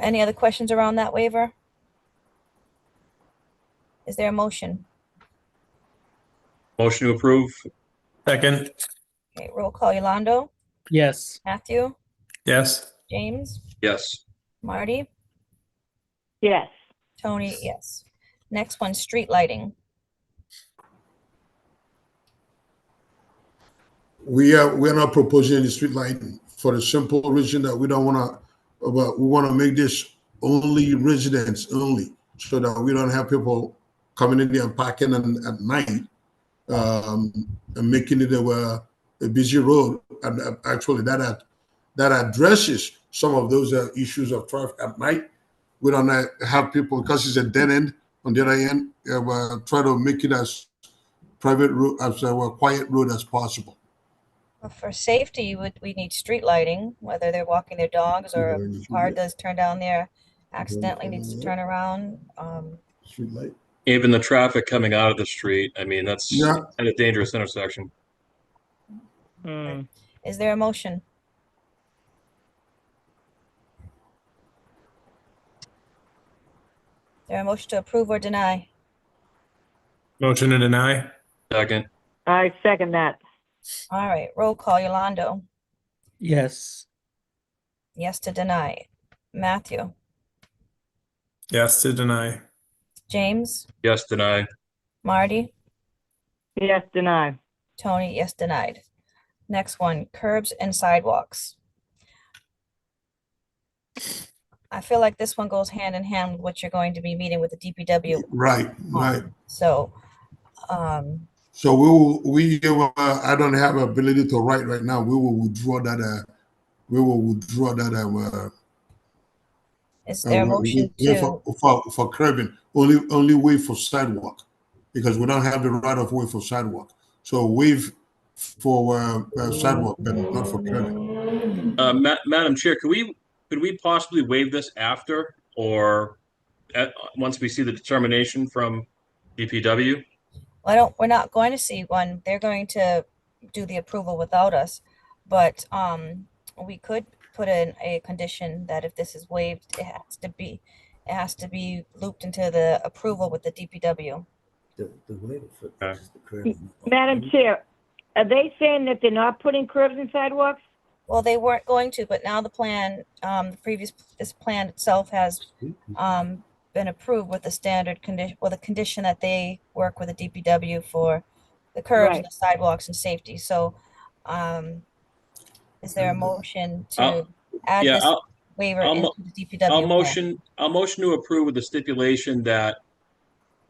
Any other questions around that waiver? Is there a motion? Motion to approve? Second, Okay, roll call Yolando, yes, Matthew, yes. James, Yes. Marty, yes, Tony, yes. Next one, street lighting. We are, we're not proposing any street lighting for the simple reason that we don't wanna, but we wanna make this only residents only, so that we don't have people coming in there and parking and at night, um, and making it a, uh, a busy road. And uh, actually, that, ad- that addresses some of those uh, issues of traffic at night. We don't uh, have people, because it's a dead end, on the other end, uh, we're trying to make it as private road, as a quiet road as possible. For safety, you would, we need street lighting, whether they're walking their dogs or a car does turn down there accidentally needs to turn around. Um, Streetlight. Even the traffic coming out of the street, I mean, that's Yeah. at a dangerous intersection. Mm, Is there a motion? There a motion to approve or deny? Motion to deny? Second, I second that, All right, roll call Yolando. yes, Yes to deny. Matthew, Yes to deny. James, yes, deny. Marty, yes, deny, Tony, yes denied. Next one, curbs and sidewalks. I feel like this one goes hand in hand with what you're going to be meeting with the DPW. Right, right. So, um, So we will, we, uh, I don't have ability to write right now. We will withdraw that, uh, we will withdraw that, uh, uh, is there a uh, motion yeah, to? for- For, for curbing, only, only way for sidewalk, because we don't have the right of way for sidewalk. So waive for, uh, uh, sidewalk, but not for curbing. Uh, Ma- Madam Chair, could we, could we possibly waive this after or at, once we see the determination from DPW? I don't, we're not going to see one. They're going to do the approval without us. But, um, we could put in a condition that if this is waived, it has to be, it has to be looped into the approval with the DPW. The, the way to fix Okay. is the curve. Madam Chair, are they saying that they're not putting curbs and sidewalks? Well, they weren't going to, but now the plan, um, the previous, this plan itself has, um, been approved with the standard condition, with a condition that they work with the DPW for the curbs, Right. the sidewalks and safety. So, um, is there a motion to I'll- add Yeah, this I'll, waiver I'll into mo- the DPW? I'll plan? motion, I'll motion to approve with the stipulation that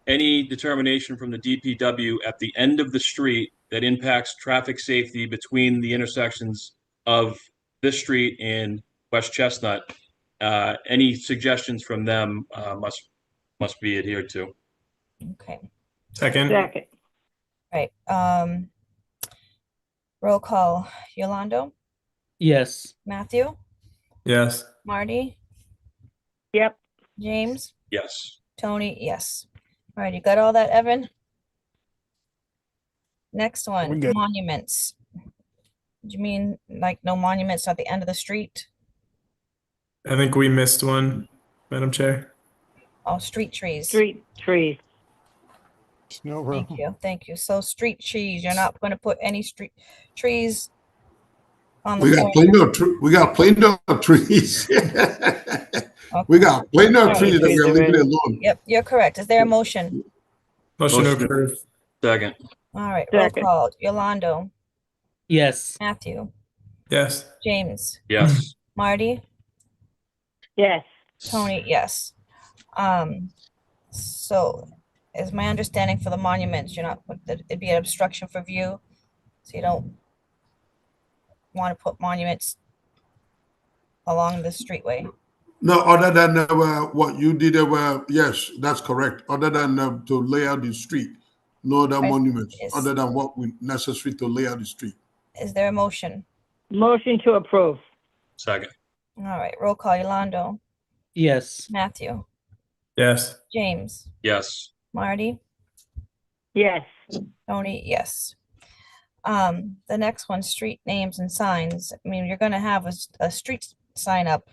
any determination from the DPW at the end of the street that impacts traffic safety between the intersections of this street and West Chestnut, uh, any suggestions from them, uh, must, must be adhered to. Okay, Second, Second, right, um, roll call, Yolando, yes, Matthew, yes. Marty, yep, James? Yes. Tony, yes. All right, you got all that, Evan? Next one, monuments. Do you mean like no monuments at the end of the street? I think we missed one, Madam Chair. Oh, street trees. street trees, Thank you, thank you. So street trees, you're not gonna put any street trees on We the got corner. plenty of, tr- we got plenty of trees. We Okay. got plenty Yeah, of trees that trees we're are leaving ready. alone. Yep, you're correct. Is there a motion? Motion to Motion. approve, Second, All right, roll Second. call. Yolando, yes, Matthew, yes. James, yes. Marty? yes, Tony, yes. Um, so is my understanding for the monuments, you're not, that it'd be an obstruction for view, so you don't want to put monuments along the streetway. No, other than uh, well, what you did, uh, well, yes, that's correct. Other than uh, to lay out the street, no other Right. monuments, Yes. other than what we necessary to lay out the street. Is there a motion? motion to approve, Second, All right, roll call, Yolando, yes, Matthew, Yes, James, yes. Marty, yes, Tony, yes. Um, the next one, street names and signs. I mean, you're gonna have a, s- a street sign up